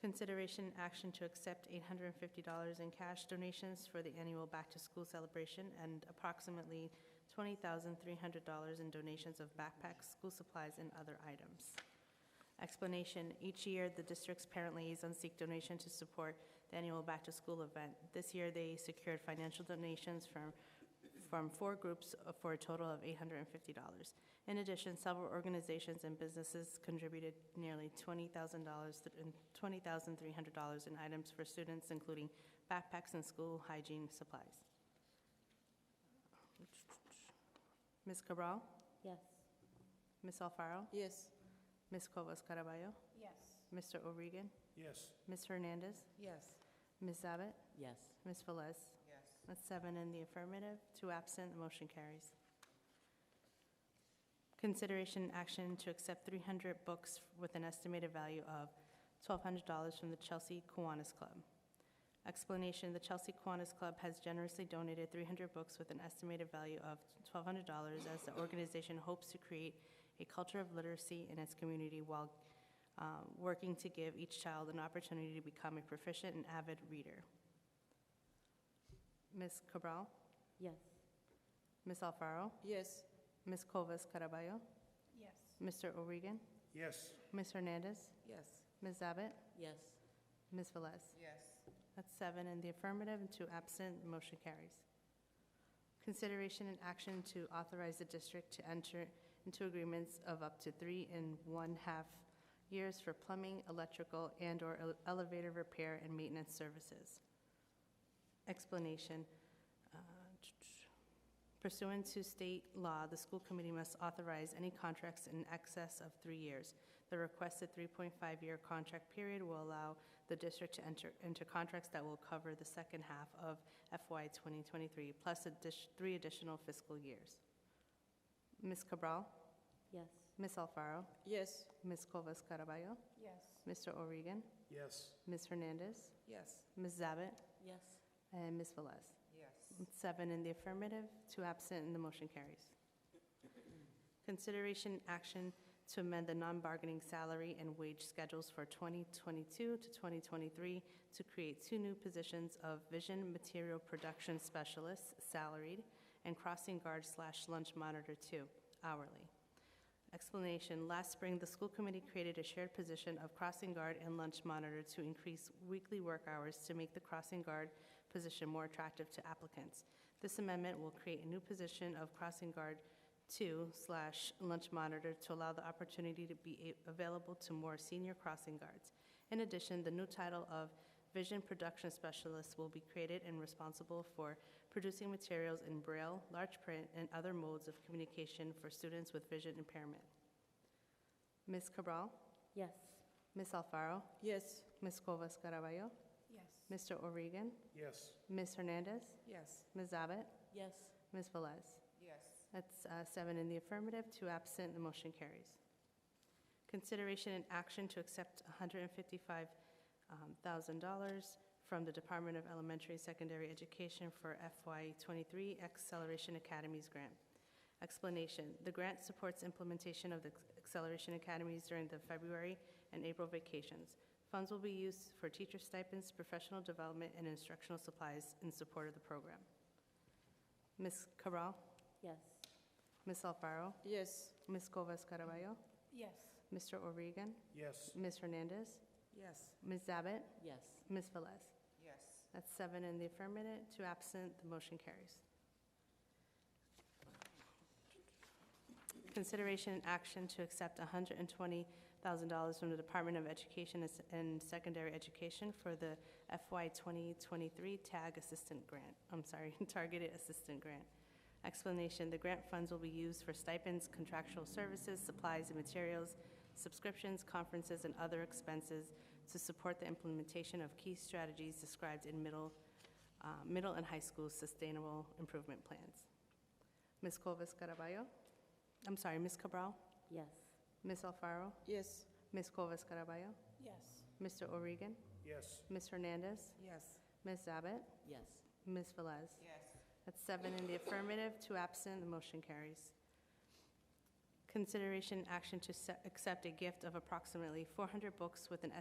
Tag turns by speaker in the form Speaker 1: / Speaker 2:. Speaker 1: consideration action to accept $850 in cash donations for the annual back-to-school celebration and approximately $20,300 in donations of backpacks, school supplies, and other items. Explanation, each year, the district's parent liaison seek donation to support the annual back-to-school event. This year, they secured financial donations from, from four groups for a total of $850. In addition, several organizations and businesses contributed nearly $20,000 th- and $20,300 in items for students, including backpacks and school hygiene supplies. Ms. Cabral?
Speaker 2: Yes.
Speaker 1: Ms. Alfaro?
Speaker 3: Yes.
Speaker 1: Ms. Cuevas Caraballo?
Speaker 2: Yes.
Speaker 1: Mr. O'Regan?
Speaker 4: yes,
Speaker 1: Ms. Hernandez?
Speaker 3: Yes.
Speaker 1: Ms. Abbott?
Speaker 2: Yes.
Speaker 1: Ms. Velez?
Speaker 3: Yes.
Speaker 1: That's seven in the affirmative, two absent, the motion carries. Consideration and action to accept 300 books with an estimated value of $1,200 from the Chelsea Kiwanis Club. Explanation, the Chelsea Kiwanis Club has generously donated 300 books with an estimated value of $1,200 as the organization hopes to create a culture of literacy in its community while uh, working to give each child an opportunity to become a proficient and avid reader. Ms. Cabral?
Speaker 2: Yes.
Speaker 1: Ms. Alfaro?
Speaker 3: Yes.
Speaker 1: Ms. Covas Caraballo?
Speaker 2: Yes.
Speaker 1: Mr. O'Regan?
Speaker 4: yes,
Speaker 1: Ms. Hernandez?
Speaker 3: Yes.
Speaker 1: Ms. Abbott?
Speaker 2: Yes.
Speaker 1: Ms. Velez?
Speaker 3: Yes.
Speaker 1: That's seven in the affirmative and two absent. The motion carries. Consideration and action to authorize the district to enter into agreements of up to three and one-half years for plumbing, electrical, and/or ele- elevator repair and maintenance services. Explanation. uh, Pursuant to state law, the school committee must authorize any contracts in excess of three years. The requested 3.5-year contract period will allow the district to enter into contracts that will cover the second half of FY 2023, plus addi- three additional fiscal years. Ms. Cabral?
Speaker 2: Yes.
Speaker 1: Ms. Alfaro?
Speaker 3: Yes.
Speaker 1: Ms. Covas Caraballo?
Speaker 2: Yes.
Speaker 1: Mr. O'Regan?
Speaker 4: yes,
Speaker 1: Ms. Hernandez?
Speaker 3: Yes.
Speaker 1: Ms. Zabit?
Speaker 2: Yes.
Speaker 1: And Ms. Velez?
Speaker 3: Yes.
Speaker 1: Seven in the affirmative, two absent, and the motion carries. Consideration and action to amend the non-bargaining salary and wage schedules for 2022 to 2023 to create two new positions of vision material production specialist, salaried, and crossing guard slash lunch monitor two, hourly. Explanation, last spring, the school committee created a shared position of crossing guard and lunch monitor to increase weekly work hours to make the crossing guard position more attractive to applicants. This amendment will create a new position of crossing guard two slash lunch monitor to allow the opportunity to be a- available to more senior crossing guards. In addition, the new title of vision production specialist will be created and responsible for producing materials in braille, large print, and other modes of communication for students with vision impairment. Ms. Cabral,
Speaker 2: Yes.
Speaker 1: Ms. Alfaro,
Speaker 3: Yes.
Speaker 1: Ms. Covas Caraballo,
Speaker 2: Yes.
Speaker 1: Mr. O'Regan,
Speaker 4: yes,
Speaker 1: Ms. Hernandez,
Speaker 3: Yes.
Speaker 1: Ms. Abbott,
Speaker 2: Yes.
Speaker 1: Ms. Velez.
Speaker 3: Yes.
Speaker 1: That's uh, seven in the affirmative, two absent, the motion carries. Consideration and action to accept $155,000 um, from the Department of Elementary and Secondary Education for FY23 Acceleration Academies Grant. Explanation, the grant supports implementation of the Acceleration Academies during the February and April vacations. Funds will be used for teacher stipends, professional development, and instructional supplies in support of the program. Ms. Cabral?
Speaker 2: Yes.
Speaker 1: Ms. Alfaro,
Speaker 3: Yes.
Speaker 1: Ms. Covas Caraballo,
Speaker 2: Yes.
Speaker 1: Mr. O'Regan,
Speaker 4: yes,
Speaker 1: Ms. Hernandez,
Speaker 3: Yes.
Speaker 1: Ms. Abbott,
Speaker 2: Yes.
Speaker 1: Ms. Velez.
Speaker 3: Yes.
Speaker 1: That's seven in the affirmative, two absent, the motion carries. Consideration and action to accept $120,000 from the Department of Education and S- and Secondary Education for the FY 2023 TAG Assistant Grant, I'm sorry, Targeted Assistant Grant. Explanation, the grant funds will be used for stipends, contractual services, supplies and materials, subscriptions, conferences, and other expenses to support the implementation of key strategies described in middle, uh, middle and high school sustainable improvement plans. Ms. Covas Caraballo? I'm sorry, Ms. Cabral?
Speaker 2: Yes.
Speaker 1: Ms. Alfaro?
Speaker 3: Yes.
Speaker 1: Ms. Covas Caraballo?
Speaker 2: Yes.
Speaker 1: Mr. O'Regan?
Speaker 4: yes,
Speaker 1: Ms. Hernandez?
Speaker 3: Yes.
Speaker 1: Ms. Abbott?
Speaker 2: Yes.
Speaker 1: Ms. Velez?
Speaker 3: Yes.
Speaker 1: That's seven in the affirmative, two absent, the motion carries. Consideration action to se- accept a gift of approximately 400 books with an